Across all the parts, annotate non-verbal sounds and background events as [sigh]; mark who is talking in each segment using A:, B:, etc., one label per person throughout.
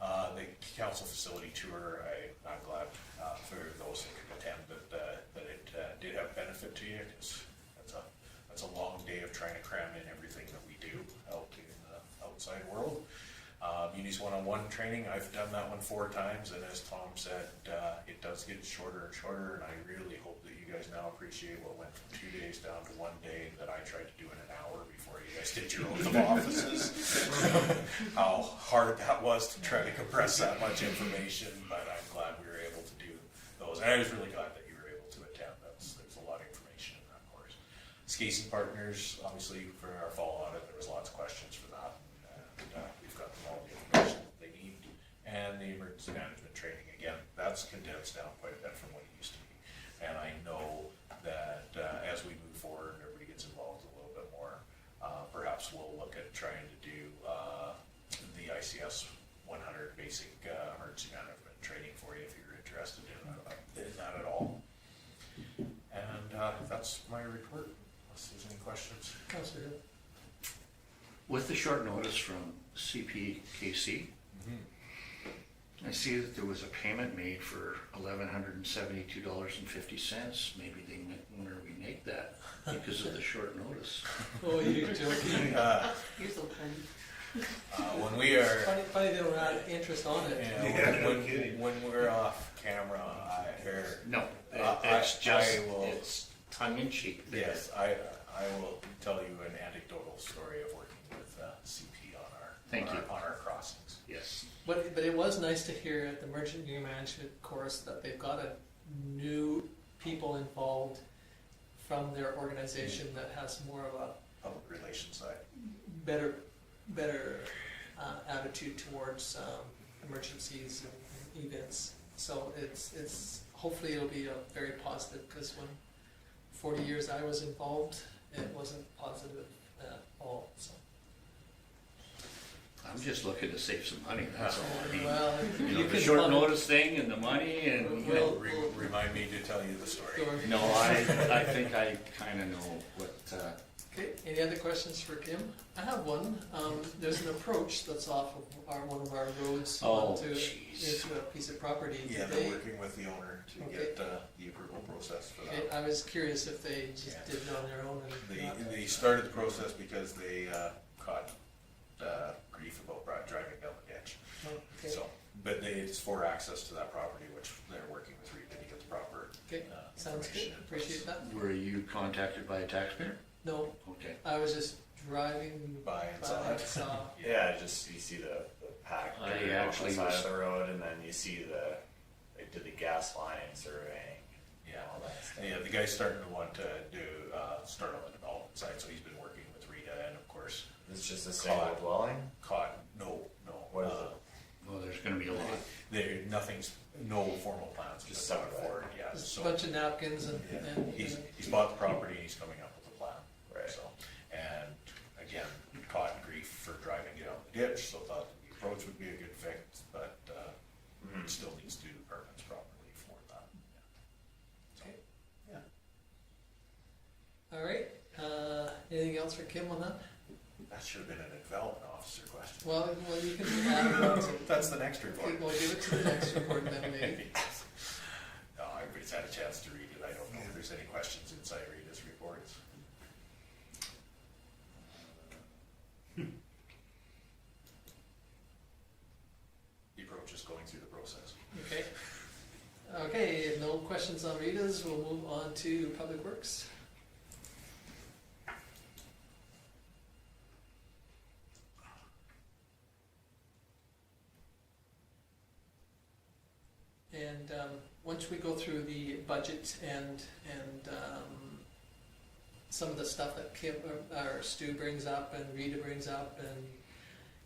A: Uh, council facility tour, I, I'm glad, uh, for those that could attend, that, uh, that it, uh, did have benefit to you, 'cause that's a, that's a long day of trying to cram in everything that we do out in the outside world. Uh, Munis one-on-one training, I've done that one four times, and as Tom said, uh, it does get shorter and shorter, and I really hope that you guys now appreciate what went from two days down to one day that I tried to do in an hour before you guys did your oath of offices. [laughs] How hard that was to try to compress that much information, but I'm glad we were able to do those, and I was really glad that you were able to attend, that's, there's a lot of information in that course. Skis and Partners, obviously, for our fall audit, there was lots of questions for that. And uh, we've got them all the information that they need. And the emergency management training, again, that's condensed down quite a bit from what it used to be. And I know that uh, as we move forward, and everybody gets involved a little bit more. uh, Perhaps we'll look at trying to do uh, the ICS 100 basic uh, emergency management training for you if you're interested in uh, in that at all. And uh, that's my report, unless there's any questions.
B: Counselor Hill.
C: With the short notice from CPKC,
A: Mm-hmm.
C: I see that there was a payment made for eleven hundred and seventy-two dollars and fifty cents. Maybe they might wonder we make that because
A: [laughs]
C: of the short notice.
B: Oh, you're joking.
A: Uh,
D: You're so funny.
A: uh, When we
C: [laughs]
A: are,
B: Funny, funny they don't add interest on it.
A: yeah, when- when, when we're off camera, I, or,
C: No,
A: Uh,
C: it's
A: I-
C: just,
A: I will-
C: it's tongue in cheek.
A: yes, I, I will tell you an anecdotal story of working with uh, CP on our,
C: Thank
A: on
C: you.
A: our- on our crossings.
C: Yes.
B: But, but it was nice to hear at the merchant union management course that they've got a new people involved from their organization that has more of a
A: Public relations side,
B: better, better uh, attitude towards um, emergencies and events. So it's, it's, hopefully it'll be a very positive, because when forty years I was involved, it wasn't positive at all, so.
C: I'm just looking to save some money, that's all I mean.
B: Well,
C: You
B: you
C: know, the
B: can
C: short
B: plug it-
C: notice thing and the money and,
B: Well,
A: Re- remind me to tell you the story.
B: Sure.
C: no, I, I think I kinda know what, uh,
B: Okay, any other questions for Kim? I have one. Um, there's an approach that's off of our, one of our roads
C: Oh,
B: onto,
C: jeez.
B: into a piece of property.
A: Yeah,
B: They-
A: they're working with the owner to get uh, the approval process for
B: Okay,
A: that.
B: I was curious if they just
A: Yeah.
B: did it on their own and
A: They,
B: not.
A: they started the process because they uh, caught uh, grief about bri- driving down the ditch.
B: Oh, okay.
A: So, but they, it's for access to that property, which they're working with Rita to get the proper.
B: Okay,
A: uh,
B: sounds good,
A: information in place.
B: appreciate that.
C: were you contacted by a taxpayer?
B: No,
C: Okay.
B: I was just driving by
A: By and side.
B: and saw,
A: [laughs]
E: Yeah, just you see the, the pack
A: Oh,
C: I
E: dirt on
C: actually
E: the side
C: was-
E: of the road, and then you see the they did the gas line surveying.
A: Yeah,
E: all that stuff.
A: yeah, the guy's starting to want to do, uh, start on the development side, so he's been working with Rita and of course,
E: It's just a single
A: Caught.
E: dwelling.
A: caught, no, no.
E: What is
A: uh,
C: Well, there's gonna be a lot.
A: There, nothing's, no formal plans. have
E: Just
A: been put
E: some of it.
A: forward, Yeah,
B: just
A: so.
B: a bunch of napkins and,
A: Yeah,
B: and.
A: He's,
B: and-
A: he's bought the property and he's coming up with a plan.
E: Right.
A: So, and again, caught in grief for driving it out the ditch, so thought the approach would be a good fix, but, uh, it still needs to do the permits properly for that.
B: Okay.
A: Yeah.
B: All right, uh, anything else for Kim on that?
A: That should have been a development officer question.
B: Well, well, you can add it on to.
A: [laughs] That's the next report.
B: Okay, We'll give it to the next report then, maybe.
A: [laughs] No, everybody's had a chance to read it. I don't know if there's any questions inside Rita's reports. The approach is going through the process.
B: Okay. Okay, if no questions on Rita's, we'll move on to Public Works. And um, once we go through the budget and, and um, some of the stuff that Kim, or or Stu brings up and Rita brings up and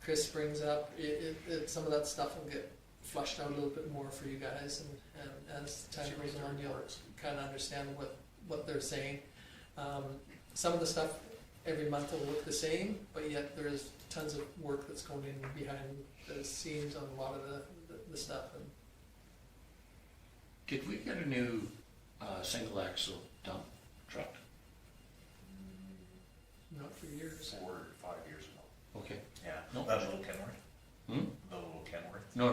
B: Chris brings up, it, it, it, some of that stuff will get flushed out a little bit more for you guys and, and as time goes on, you'll kind of understand what, what they're saying. Um, some of the stuff every month will look the same, but yet there is tons of work that's going in behind the scenes on a lot of the, the, the stuff and
C: Did we get a new uh, single axle dump truck?
B: not for years.
A: Four, or five years ago.
C: Okay.
A: Yeah.
C: Nope.
A: That little Kenworth?
C: Hmm?